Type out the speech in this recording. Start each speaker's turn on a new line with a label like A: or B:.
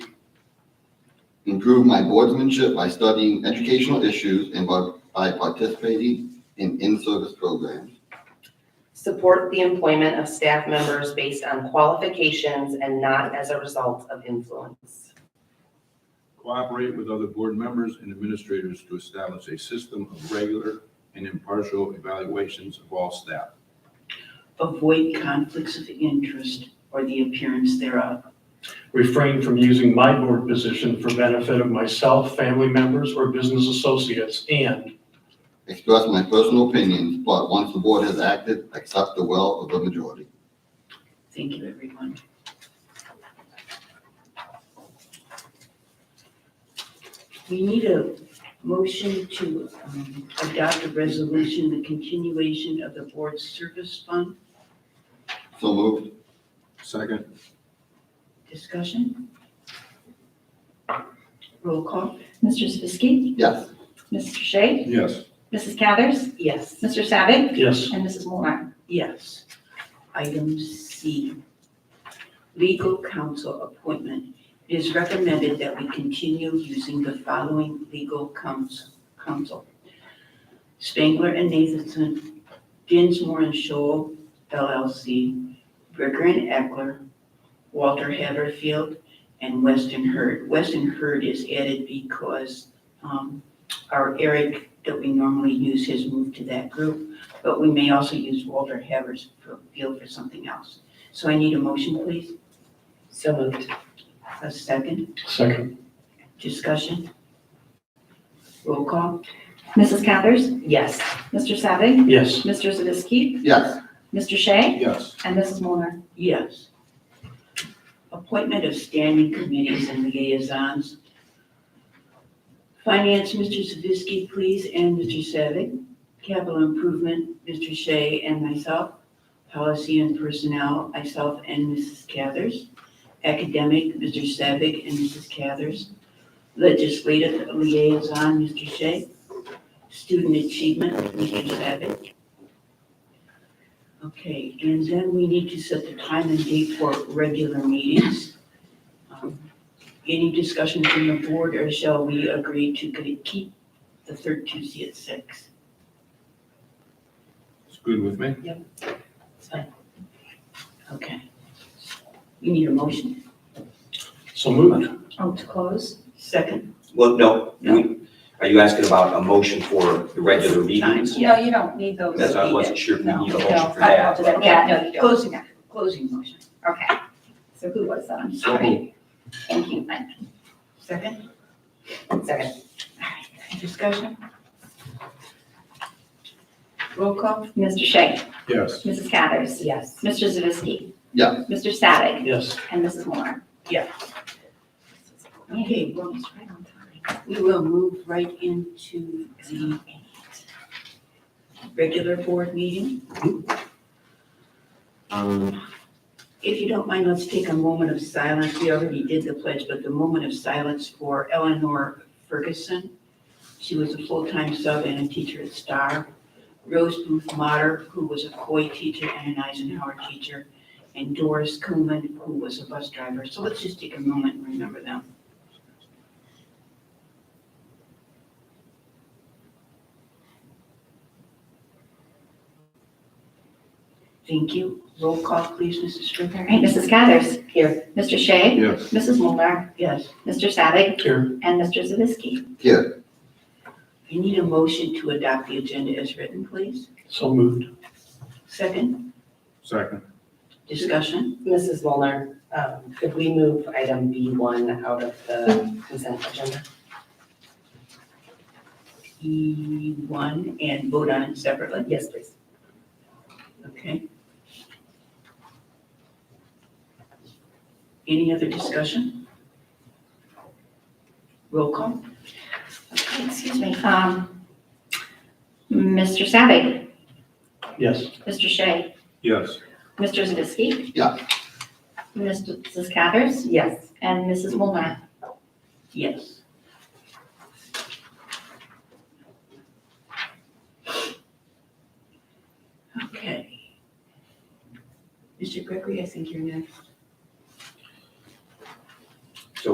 A: improve my boardsmanship by studying educational issues and by by participating in in-service programs.
B: Support the employment of staff members based on qualifications and not as a result of influence.
C: Cooperate with other board members and administrators to establish a system of regular and impartial evaluations of all staff.
D: Avoid conflicts of interest or the appearance thereof.
E: Refrain from using my board position for benefit of myself, family members, or business associates, and
A: Express my personal opinions, but once the board has acted, accept the will of the majority.
D: Thank you, everyone. We need a motion to um, adopt a resolution, the continuation of the board service fund.
A: So moved.
C: Second,
D: Discussion? Roll call?
F: Mr. Zavisky,
A: Yes.
F: Mr. Shea,
C: yes.
F: Mrs. Cathers,
B: Yes.
F: Mr. Savick,
E: yes,
F: and Mrs. Molnar.
D: Yes. Item C, legal counsel appointment. It is recommended that we continue using the following legal counsel. counsel: Spangler and Nathanson, Dinsmore and Shoal LLC, Bricker and Eckler, Walter Haverfield, and Weston Hurd. Weston Hurd is added because um, our Eric that we normally use has moved to that group but we may also use Walter Havers for field for something else. So I need a motion, please.
B: So moved.
D: A second,
E: second,
D: discussion. Roll call?
F: Mrs. Cathers,
B: Yes.
F: Mr. Savick,
E: yes,
F: Mr. Zavisky,
A: Yes.
F: Mr. Shea,
C: Yes.
F: and Mrs. Molnar.
D: Yes. Appointment of standing committees and liaisons. Finance, Mr. Zavisky, please, and Mr. Savick. Capital Improvement, Mr. Shea and myself. Policy and Personnel, myself and Mrs. Cathers. Academic, Mr. Savick and Mrs. Cathers. Legislative Liaison, Mr. Shea. Student Achievement, Mr. Savick. Okay, and then we need to set the time and date for regular meetings. Um, Any discussion from the board, or shall we agree to keep the third Tuesday at six?
C: It's good with me.
B: It's fine.
D: Okay. We need a motion.
E: so moved,
F: Oh, to close?
D: Second?
G: Well, no,
D: No.
G: we- are you asking about a motion for the regular meetings?
F: No, you don't need those.
G: That's, I wasn't sure if we need a
F: No,
G: motion for
F: I apologize.
G: that.
F: Yeah, no, you don't.
D: Closing, closing motion.
F: Okay. So who was that? I'm
G: So
F: sorry. Thank you, Mike.
D: Second?
B: Second.
D: Discussion? Roll call?
F: Mr. Shea,
C: Yes.
F: Mrs. Cathers,
B: Yes.
F: Mr. Zavisky.
A: Yes.
F: Mr. Savick,
E: yes,
F: and Mrs. Molnar.
D: Okay, well, we will move right into the regular board meeting. Um, If you don't mind, let's take a moment of silence. We already did the pledge, but the moment of silence for Eleanor Ferguson. She was a full-time sub and a teacher at Star. Rose Booth Motter, who was a Coy teacher and an Eisenhower teacher, and Doris Kuhlman, who was a bus driver. So let's just take a moment and remember them. Thank you. Roll call, please, Mrs.
F: All
D: Strickland.
F: right, Mrs. Cathers.
B: Here.
F: Mr. Shea,
C: Yes.
F: Mrs. Molnar,
D: Yes,
F: Mr. Savick,
E: here,
F: and Mr. Zavisky.
A: Here.
D: I need a motion to adopt the agenda as written, please.
E: so moved,
D: Second,
C: Second,
D: discussion.
B: Mrs. Molnar, um, could we move item B1 out of the consent agenda?
D: E one and vote on it separately,
B: Yes, please.
D: okay? Any other discussion? Roll call?
F: Okay, Excuse me. Um, Mr. Savick,
E: yes,
F: Mr. Shea,
C: yes.
F: Mr. Zavisky.
A: Yeah.
F: Mrs. Cathers
B: Yes.
F: and Mrs. Molnar.
D: Yes. Okay. Mr. Gregory, I think you're next.